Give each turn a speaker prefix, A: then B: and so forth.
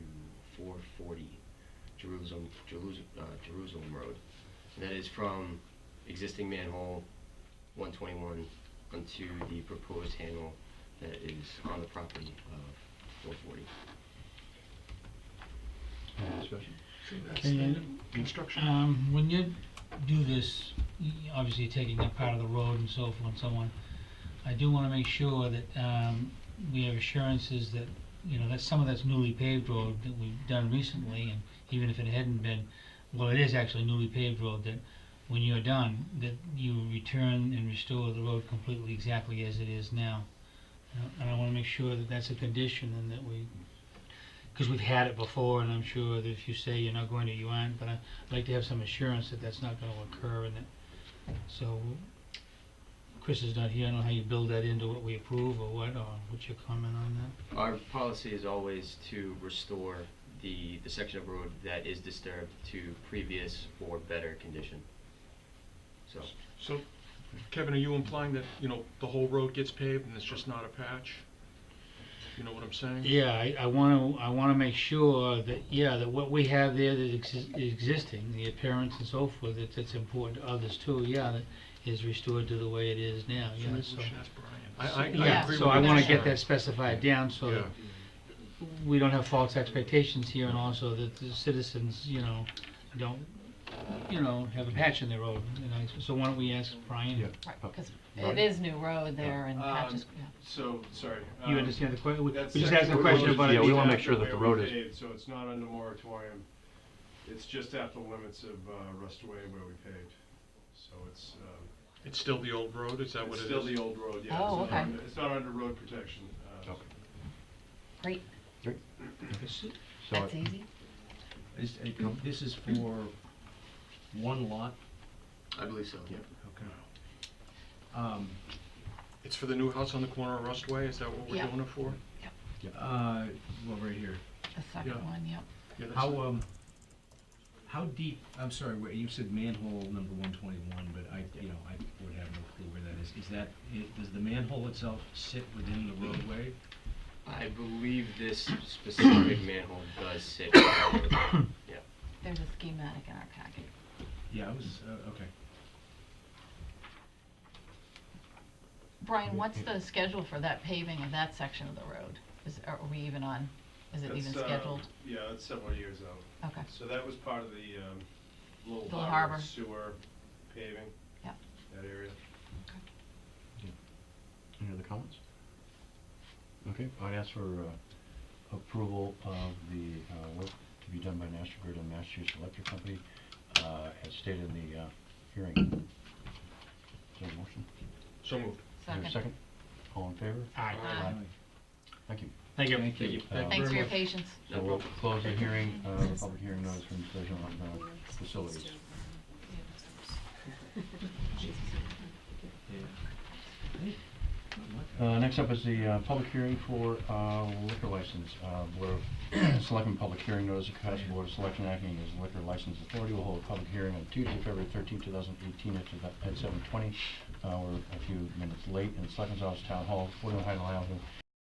A: forty Jerusalem, Jerusalem, uh, Jerusalem Road. And that is from existing manhole one twenty-one onto the proposed handle that is on the property of four forty.
B: Any discussion?
C: So that's
D: Can
C: the
D: you-
C: construction.
D: Um, when you do this, y- obviously you're taking up part of the road and so forth and so on. I do wanna make sure that, um, we have assurances that, you know, that some of that's newly paved road that we've done recently, and even if it hadn't been, well, it is actually newly paved road, that when you're done, that you return and restore the road completely exactly as it is now. And I- And I wanna make sure that that's a condition and that we, cause we've had it before, and I'm sure that if you say you're not going to, you aren't, but I, I'd like to have some assurance that that's not gonna occur and that, so, Chris is not here, I don't know how you build that into what we approve or what, or what's your comment on that?
A: Our policy is always to restore the, the section of road that is disturbed to previous or better condition. So,
C: So, Kevin, are you implying that, you know, the whole road gets paved and it's just not a patch? You know what I'm saying?
D: Yeah, I, I wanna, I wanna make sure that, yeah, that what we have there that exis- is existing, the appearance and so forth, that that's important to others too, yeah, that is restored to the way it is now,
C: So
D: yeah,
C: maybe we
D: so.
C: should ask Brian. I, I, I agree
D: Yeah,
C: with
D: so I
C: you.
D: wanna get that specified down so
C: Yeah,
D: that we don't have false expectations here and also that the citizens, you know, don't, you know, have a patch in their road, you know, so why don't we ask
B: Yeah.
D: Brian?
E: Right,
B: Pub-
E: because
B: Right.
E: it is new road there and
F: Um,
E: patches, yeah.
F: So, sorry.
D: You
F: um,
D: understand the question, we
F: that
D: just
F: section
D: asked a
F: where
D: question
F: road is
D: about it.
B: Yeah, we
F: just
B: wanna make
F: after
B: sure that the
F: where we
B: road is-
F: paved, So it's not under moratorium, it's just at the limits of uh, Rustway where we paved. So it's, um,
C: it's still the old road, is that what it
F: it's
C: is?
F: still the old road, yeah.
E: Oh,
F: It's not
E: okay.
F: under- It's not under road protection. uh,
B: Okay.
E: Great,
B: So
E: that's
B: I-
E: easy.
G: Is, uh, com- this is for one lot?
A: I believe so.
G: Okay. Um,
C: It's for the new house on the corner of Rustway, is that what we're
E: Yeah.
C: doing it for?
G: uh, well, right here.
E: The second
C: Yeah.
E: one, yep.
C: Yeah, that's
G: How,
C: it.
G: um, how deep, I'm sorry, wait, you said manhole number one twenty-one, but I, you know, I would have no clue where that is. Is that, i- does the manhole itself sit within the roadway?
A: I believe this specific manhole does sit. Yeah.
E: There's a schematic in our packet.
G: Yeah, I was, uh, okay.
E: Brian, what's the schedule for that paving of that section of the road? Is, are we even on, is it
F: that's,
E: even
F: uh,
E: scheduled?
F: Yeah, that's several years out.
E: Okay,
F: So that was part of the um, Little
E: Little
F: Harbor
E: Harbor.
F: sewer paving.
E: Yep.
F: That area.
B: Any other comments? Okay, I'd ask for uh, approval of the uh, work to be done by National Grid and Massachusetts Electric Company uh, as stated in the uh, hearing. Is there a motion?
C: So moved.
B: Is there a
E: second.
B: All in favor?
D: Aye.
E: Aye.
B: Thank you.
D: Thank you.
G: Thank
A: Thank
G: you.
A: you.
B: Uh,
E: Thanks for your patience.
B: So we'll close the hearing, uh, the public hearing notice for decision on uh, facilities.
G: Yeah. Hey, not much.
B: Uh, Next up is the uh, public hearing for uh, liquor license, uh, where selecting public hearing notice of Cohasset Board of Selection acting as liquor license authority will hold a public hearing on Tuesday, February 13, 2018 at sev- at 7:20. Uh, We're a few minutes late in Selectmen's Office Town Hall, 41 Highland Avenue,